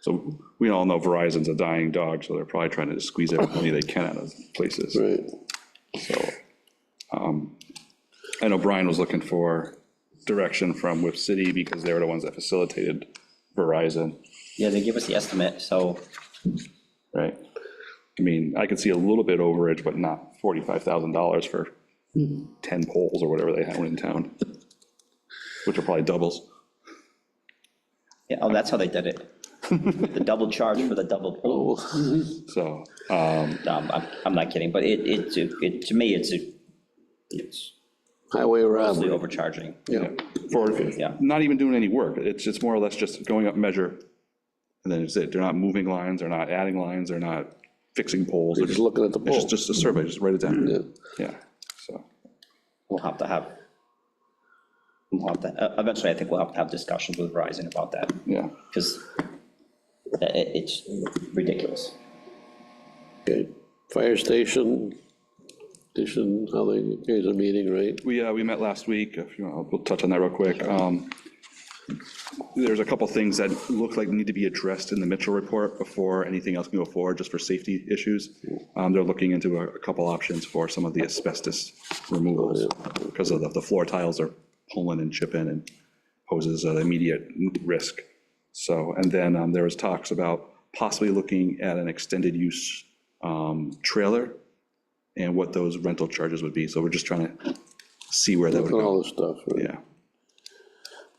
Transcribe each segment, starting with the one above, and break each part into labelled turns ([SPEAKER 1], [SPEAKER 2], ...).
[SPEAKER 1] So we all know Verizon's a dying dog, so they're probably trying to squeeze every penny they can out of places.
[SPEAKER 2] Right.
[SPEAKER 1] So um, I know Brian was looking for direction from Whip City because they were the ones that facilitated Verizon,
[SPEAKER 3] Yeah, they give us the estimate, so
[SPEAKER 1] right? I mean, I could see a little bit overage, but not $45,000 for 10 poles or whatever they have in town, which are probably doubles.
[SPEAKER 3] Yeah, oh, that's how they did it. The double charge for the double pole.
[SPEAKER 1] So,
[SPEAKER 3] Um, I'm, I'm not kidding, but it, it, it, to me, it's, a- it's
[SPEAKER 2] Highway
[SPEAKER 3] mostly
[SPEAKER 2] robbery,
[SPEAKER 3] overcharging.
[SPEAKER 2] yeah.
[SPEAKER 1] for
[SPEAKER 3] Yeah.
[SPEAKER 1] not even doing any work, it's, it's more or less just going up measure, and then it's it, they're not moving lines, they're not adding lines, they're not fixing poles,
[SPEAKER 2] They're
[SPEAKER 1] they're
[SPEAKER 2] just
[SPEAKER 1] just,
[SPEAKER 2] looking at the pole. Mm-hmm.
[SPEAKER 1] it's just a survey, just write it
[SPEAKER 2] Yeah.
[SPEAKER 1] down. Yeah, so,
[SPEAKER 3] We'll have to have, we'll have to, uh, eventually, I think we'll have to have discussions with Verizon about that,
[SPEAKER 1] yeah,
[SPEAKER 3] because it, it's ridiculous.
[SPEAKER 2] Okay, fire station, station, how they, here's a meeting, right?
[SPEAKER 1] we, uh, we met last week, if you want, we'll touch on that real quick. Um, There's a couple things that look like need to be addressed in the Mitchell report before anything else can go forward, just for safety issues. Um, They're looking into a a couple options for some of the asbestos removals, because of the- the floor tiles are pulling and chipping and poses an immediate risk. So, and then um, there was talks about possibly looking at an extended use um, trailer and what those rental charges would be. So we're just trying to see where that would
[SPEAKER 2] Looking at
[SPEAKER 1] go.
[SPEAKER 2] all this stuff, right?
[SPEAKER 1] Yeah.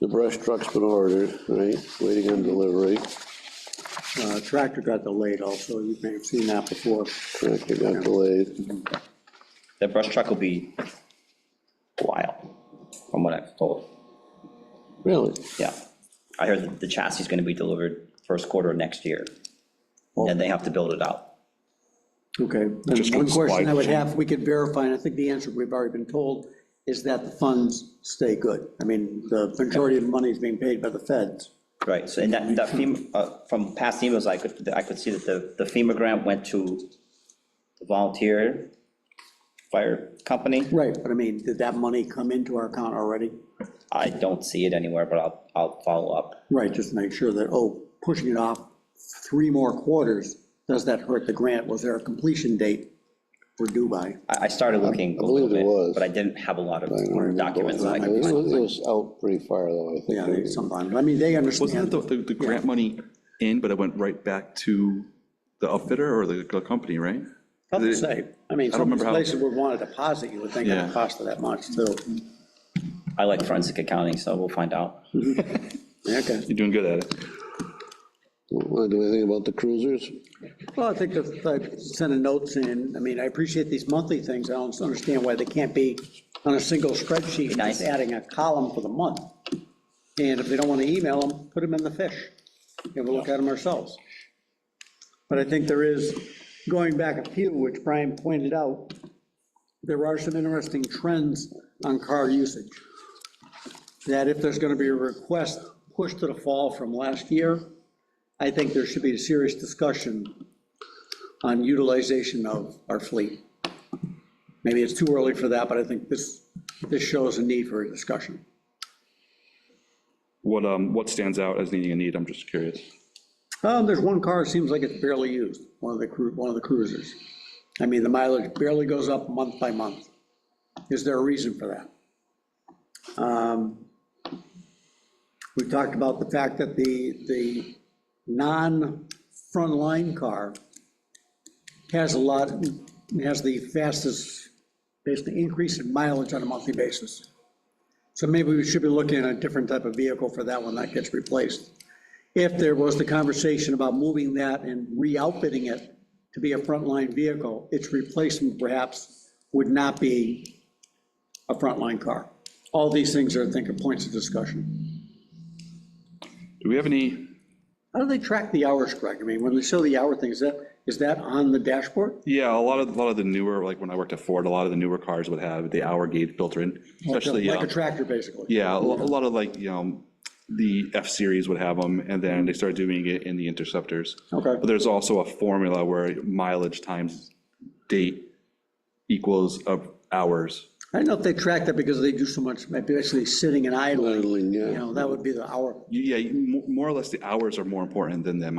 [SPEAKER 2] The brush truck's been ordered, right? Waiting on delivery,
[SPEAKER 4] Uh, Tractor got delayed also, you may have seen that before.
[SPEAKER 2] tractor got delayed,
[SPEAKER 3] The brush truck will be a while, from what I've told,
[SPEAKER 2] really?
[SPEAKER 3] yeah. I heard that the chassis is gonna be delivered first quarter of next year, and they have to build it out.
[SPEAKER 4] Okay,
[SPEAKER 1] Just
[SPEAKER 4] and one
[SPEAKER 1] looks
[SPEAKER 4] question I would
[SPEAKER 1] like-
[SPEAKER 4] have, we could verify, and I think the answer we've already been told, is that the funds stay good. I mean, the majority of the money is being paid by the feds.
[SPEAKER 3] Right, so and that, that FEMA, uh, from past emails, I could, I could see that the, the FEMA grant went to the volunteer fire company.
[SPEAKER 4] Right. But I mean, did that money come into our account already?
[SPEAKER 3] I don't see it anywhere, but I'll, I'll follow up.
[SPEAKER 4] Right, just to make sure that, oh, pushing it off three more quarters, does that hurt the grant? Was there a completion date for due by?
[SPEAKER 3] I, I started looking a
[SPEAKER 2] believe
[SPEAKER 3] little
[SPEAKER 2] it was.
[SPEAKER 3] bit, but I didn't have a lot of documents that I
[SPEAKER 2] It
[SPEAKER 3] could
[SPEAKER 2] was-
[SPEAKER 3] find.
[SPEAKER 2] it was out pretty far though, I
[SPEAKER 4] Yeah,
[SPEAKER 2] think.
[SPEAKER 4] sometimes, I mean, they
[SPEAKER 1] Wasn't
[SPEAKER 4] understand.
[SPEAKER 1] that the, the- the grant money in, but it went right back to the outfitter or the the company, right?
[SPEAKER 4] Tough to say. I mean,
[SPEAKER 1] I don't
[SPEAKER 4] some
[SPEAKER 1] remember how-
[SPEAKER 4] places would want to deposit, you would think it
[SPEAKER 1] Yeah.
[SPEAKER 4] would cost that much, too.
[SPEAKER 3] I like forensic accounting, so we'll find out.
[SPEAKER 4] Okay.
[SPEAKER 1] You're doing good at it.
[SPEAKER 2] Want to do anything about the cruisers?
[SPEAKER 4] Well, I think if I sent a note saying, I mean, I appreciate these monthly things, I don't understand why they can't be on a single spreadsheet,
[SPEAKER 3] nice.
[SPEAKER 4] just adding a column for the month. And if they don't want to email them, put them in the fish, and we'll look at them ourselves. But I think there is, going back a few, which Brian pointed out, there are some interesting trends on car usage. That if there's gonna be a request pushed to the fall from last year, I think there should be a serious discussion on utilization of our fleet. Maybe it's too early for that, but I think this, this shows a need for a discussion.
[SPEAKER 1] What, um, what stands out as needing a need? I'm just curious.
[SPEAKER 4] Um, there's one car, it seems like it's barely used, one of the cru, one of the cruisers. I mean, the mileage barely goes up month by month. Is there a reason for that? Um, We talked about the fact that the, the non-frontline car has a lot, has the fastest, basically increase in mileage on a monthly basis. So maybe we should be looking at a different type of vehicle for that one that gets replaced if there was the conversation about moving that and re-outfitting it to be a frontline vehicle, its replacement perhaps would not be a frontline car. All these things are, I think, are points of discussion.
[SPEAKER 1] Do we have any,
[SPEAKER 4] How do they track the hours, Greg? I mean, when they show the hour thing, is that, is that on the dashboard?
[SPEAKER 1] yeah, a lot of, a lot of the newer, like when I worked at Ford, a lot of the newer cars would have the hour gauge built in, especially,
[SPEAKER 4] Like
[SPEAKER 1] um,
[SPEAKER 4] a tractor, basically?
[SPEAKER 1] yeah, a lo- a lot of like, you know, the F-Series would have them, and then they started doing it in the Interceptors.
[SPEAKER 4] Okay.
[SPEAKER 1] But there's also a formula where mileage times date equals of hours.
[SPEAKER 4] I don't know if they track that because they do so much, maybe basically sitting and idling.
[SPEAKER 2] Idling, yeah.
[SPEAKER 4] You know, that would be the hour.
[SPEAKER 1] Yeah, you- mo- more or less, the hours are more important than the